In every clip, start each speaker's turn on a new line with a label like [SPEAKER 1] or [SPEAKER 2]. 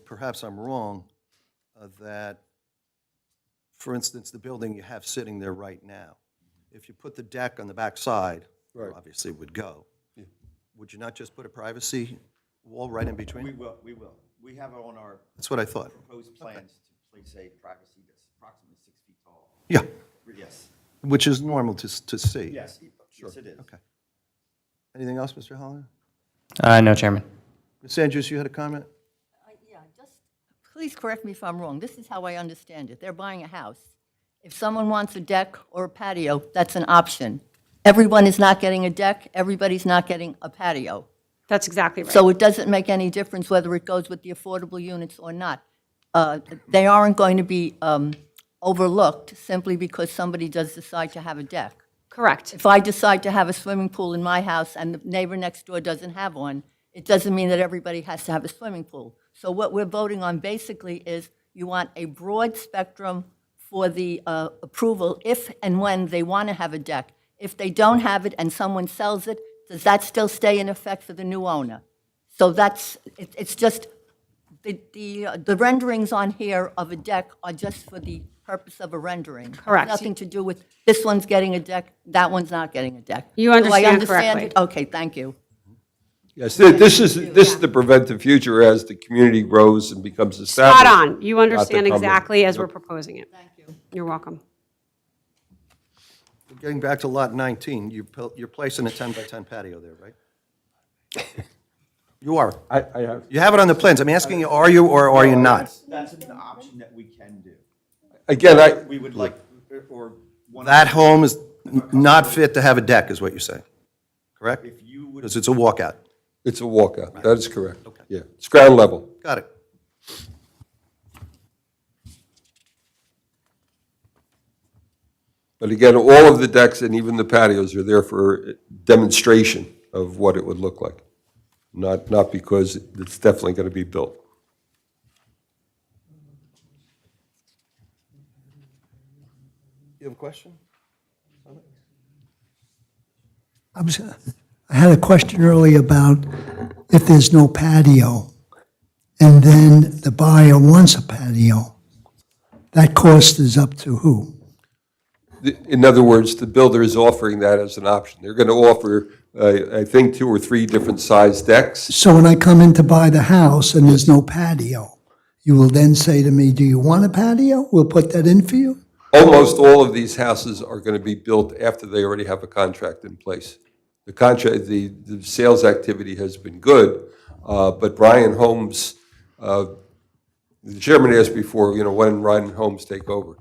[SPEAKER 1] perhaps I'm wrong, uh, that, for instance, the building you have sitting there right now, if you put the deck on the back side,
[SPEAKER 2] Right.
[SPEAKER 1] obviously it would go. Would you not just put a privacy wall right in
[SPEAKER 3] We
[SPEAKER 1] between?
[SPEAKER 3] will, we will. We have on our
[SPEAKER 1] That's what I thought.
[SPEAKER 3] proposed plans to place a privacy that's approximately six feet tall.
[SPEAKER 1] Yeah,
[SPEAKER 3] Yes,
[SPEAKER 1] which is normal to, s- to see.
[SPEAKER 3] yes, yes, it is.
[SPEAKER 1] Okay. Anything else, Mr. Holliday?
[SPEAKER 4] Uh, no, Chairman.
[SPEAKER 1] Ms. Andrews, you had a comment?
[SPEAKER 5] I- Yeah, just, please correct me if I'm wrong. This is how I understand it. They're buying a house. If someone wants a deck or a patio, that's an option. Everyone is not getting a deck, everybody's not getting a patio.
[SPEAKER 6] That's exactly right.
[SPEAKER 5] So it doesn't make any difference whether it goes with the affordable units or not. Uh, They aren't going to be um, overlooked simply because somebody does decide to have a deck.
[SPEAKER 6] Correct.
[SPEAKER 5] If I decide to have a swimming pool in my house and the neighbor next door doesn't have one, it doesn't mean that everybody has to have a swimming pool. So what we're voting on basically is you want a broad spectrum for the uh, approval if and when they want to have a deck. If they don't have it and someone sells it, does that still stay in effect for the new owner? So that's, it- it's just, the, the uh, the renderings on here of a deck are just for the purpose of a rendering. It's
[SPEAKER 6] Correct.
[SPEAKER 5] Nothing to do with, this one's getting a deck, that one's not getting a deck.
[SPEAKER 6] You
[SPEAKER 5] Do I
[SPEAKER 6] understand
[SPEAKER 5] it?
[SPEAKER 6] correctly.
[SPEAKER 5] Okay, thank you.
[SPEAKER 2] Yes, thi- this is, this is to prevent the future as the community grows and becomes established.
[SPEAKER 6] Spot on. You understand
[SPEAKER 2] comment.
[SPEAKER 6] exactly as we're proposing it. Thank you. You're welcome.
[SPEAKER 1] Getting back to Lot 19, you, pil- you're placing a 10 by 10 patio there, right? You are.
[SPEAKER 2] I, I have,
[SPEAKER 1] You have it on the plans. I'm asking you, are you or are you not?
[SPEAKER 3] That's- That's an option that we can do.
[SPEAKER 2] again, I,
[SPEAKER 3] We would like, or one,
[SPEAKER 1] That home is n- not fit to have a deck, is what you're saying, correct?
[SPEAKER 3] if you would,
[SPEAKER 1] Because it's a walkout.
[SPEAKER 2] it's a walkout. That is correct. Yeah, it's ground level.
[SPEAKER 1] Got it.
[SPEAKER 2] But again, all of the decks and even the patios are there for demonstration of what it would look like, not, not because it's definitely going to be built.
[SPEAKER 1] You have a question?
[SPEAKER 7] I was, I had a question earlier about if there's no patio, and then the buyer wants a patio, that cost is up to who?
[SPEAKER 2] The- In other words, the builder is offering that as an option. They're going to offer, uh, I think, two or three different size decks.
[SPEAKER 7] So when I come in to buy the house and there's no patio, you will then say to me, do you want a patio? We'll put that in for you?
[SPEAKER 2] Almost all of these houses are going to be built after they already have a contract in place. The contract, the, the sales activity has been good, uh, but Ryan Holmes, uh, the chairman asked before, you know, when Ryan Holmes take over.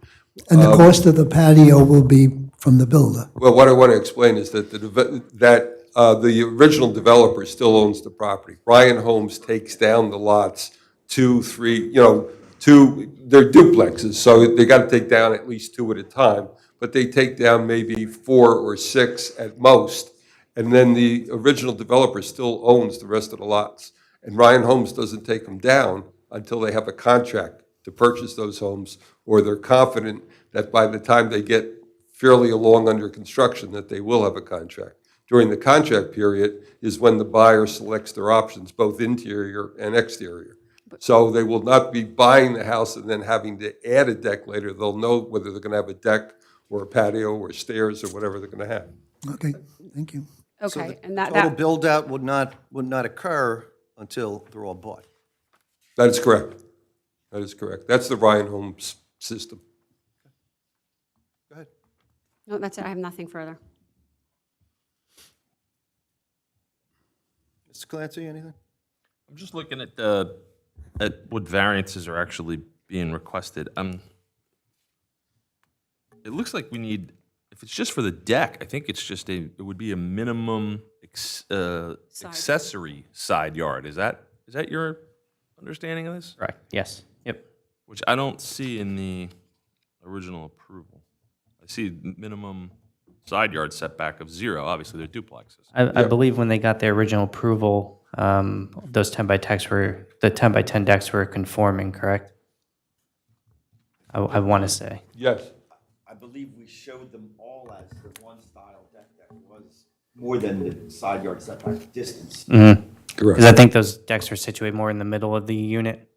[SPEAKER 7] And the cost of the patio will be from the builder.
[SPEAKER 2] Well, what I want to explain is that the, deve- that uh, the original developer still owns the property. Ryan Holmes takes down the lots, two, three, you know, two, they're duplexes, so they got to take down at least two at a time, but they take down maybe four or six at most, and then the original developer still owns the rest of the lots. And Ryan Holmes doesn't take them down until they have a contract to purchase those homes, or they're confident that by the time they get fairly along under construction that they will have a contract. During the contract period is when the buyer selects their options, both interior and exterior. So they will not be buying the house and then having to add a deck later. They'll know whether they're going to have a deck or a patio or stairs or whatever they're going to have.
[SPEAKER 7] Okay, thank you.
[SPEAKER 6] Okay, and that,
[SPEAKER 1] Total
[SPEAKER 6] that,
[SPEAKER 1] build-out would not, would not occur until they're all bought.
[SPEAKER 2] That is correct. That is correct. That's the Ryan Holmes system.
[SPEAKER 1] Go ahead.
[SPEAKER 6] no, that's it. I have nothing further.
[SPEAKER 1] Mr. Clancy, anything?
[SPEAKER 8] I'm just looking at the, at what variances are actually being requested. Um, It looks like we need, if it's just for the deck, I think it's just a, it would be a minimum ex- uh, accessory side yard. Is that, is that your understanding of this?
[SPEAKER 4] Correct. Yes. Yep.
[SPEAKER 8] Which I don't see in the original approval. I see minimum side yard setback of zero. Obviously, they're duplexes.
[SPEAKER 4] I, I believe when they got their original approval, um, those 10 by decks were, the 10 by 10 decks were conforming, correct? I, I want to say.
[SPEAKER 2] Yes.
[SPEAKER 3] I believe we showed them all as the one style deck that was more than the side yard setback distance.
[SPEAKER 4] Because I think those decks are situated more in the middle of the unit.